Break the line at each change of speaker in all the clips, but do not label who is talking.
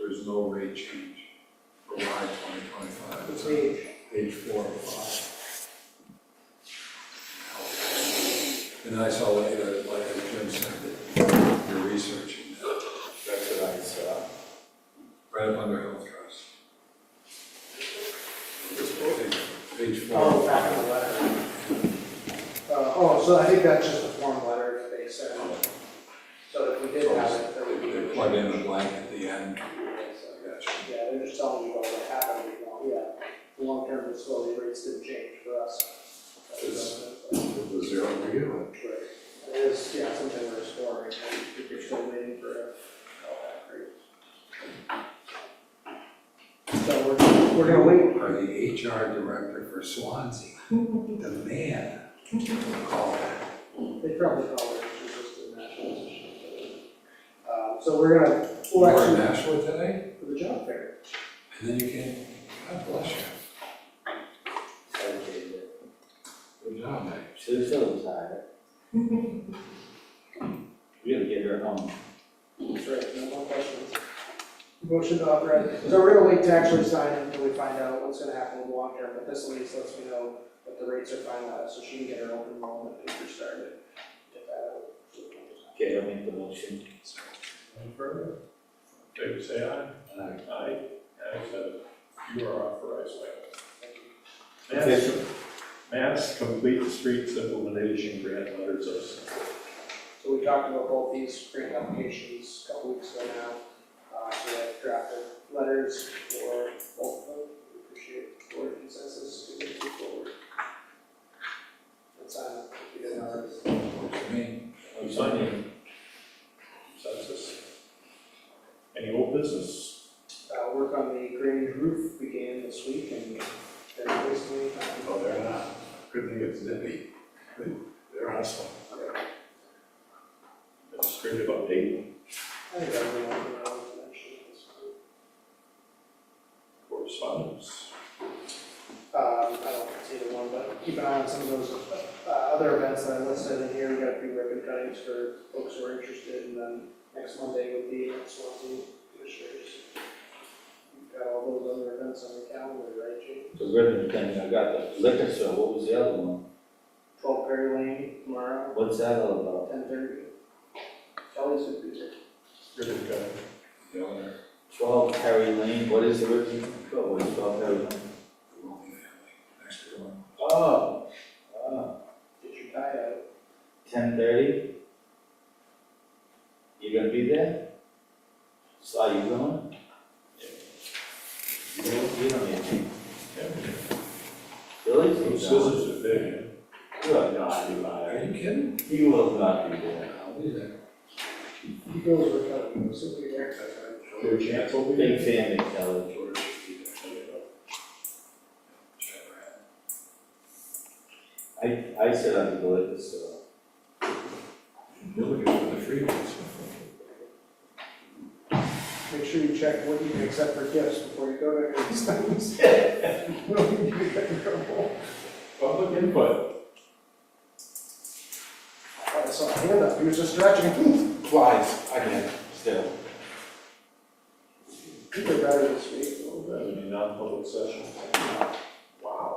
there's no rate change for Y twenty twenty-five.
What page?
Page four and five. And I saw later, like as Jim said, that you're researching that,
That's what I saw.
right up under health trust. Page- Page four.
Oh, back in the letter. Uh, oh, so I think that's just a form letter that they sent. So if we did have it, that would be.
They plug in a blank at the end. I got you.
Yeah, they're just telling you what would happen, you know, yeah, the long-term disability rates didn't change for us. That was, uh,
It was zero to begin with.
right. It is, yeah, something we're exploring, and you're still waiting for a callback rate. So we're, we're gonna wait,
Or the HR director for Swansea, the man. Call that.
they probably call it, it's just a national position. Um, so we're gonna,
You
we'll
were in
actually,
Nashville today,
for the job fair.
and then you came, God bless you.
Okay, but
Good job, mate.
She's still tired. We gotta get her home.
That's right, no more questions. Motion to authorize, so we're gonna wait to actually sign it until we find out what's gonna happen with long term, but this at least lets me know that the rates are finalized, so she can get her open enrollment paper started. Get that
Okay, I'll make the motion.
Any further? Okay, say aye.
Aye.
Aye. Aye, so you are authorized by law.
Okay.
Mass, mass complete streets implementation grant letters of support.
out. So we talked about both these grant applications a couple weeks ago now, uh, so we have drafted letters for both of them, we appreciate the board consensus to move forward. That's uh, on, if you didn't already.
Works for me.
I'm signing. Consensus. Any old business?
uh, work on the Grange roof began this week and they're basically, uh,
No, Oh, they're not. Good thing it's nippy. They're awesome. Administrative update,
I think everyone around mentioned this.
correspondence.
Um, I don't see the one, but keep an eye on some of those, uh, other events that I listed in here, we got a few ribbon cuttings for folks who are interested, and then next Monday would be at Swansea Commissioners. We've got all those other events on the calendar, right, Jim?
The ribbon thing, I got the liquor store, what was the other one?
Twelve Perry Lane tomorrow,
What's that all about?
ten thirty. Kelly's would be there.
Ribbon cutting.
The owner,
Twelve Perry Lane, what is the ribbon? Oh, what is twelve Perry Lane?
the Wilkie family, next to him.
Oh, oh,
Get your tie out.
ten thirty? You gonna be there? So are you going? You don't, you don't need to.
Yeah.
Billy's going.
Those Scissors are big.
You are not alive.
Are you kidding?
He will not be there.
I'll be there.
You girls were cutting, so we were.
Your chance will be.
Big fan of Kelly.
George should be there. Chevrolet.
I, I sit on the liquor store.
You're looking for the free ones.
Make sure you check what you can accept for gifts before you go to any stones.
Public input.
I saw a hand up, he was just stretching.
Flies, again, still.
People are better this week.
That would be non-public session. Wow.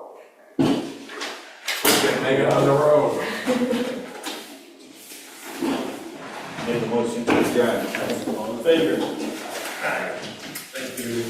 Make it on the road.
Make a motion to adjourn.
All in favor? Aye. Thank you.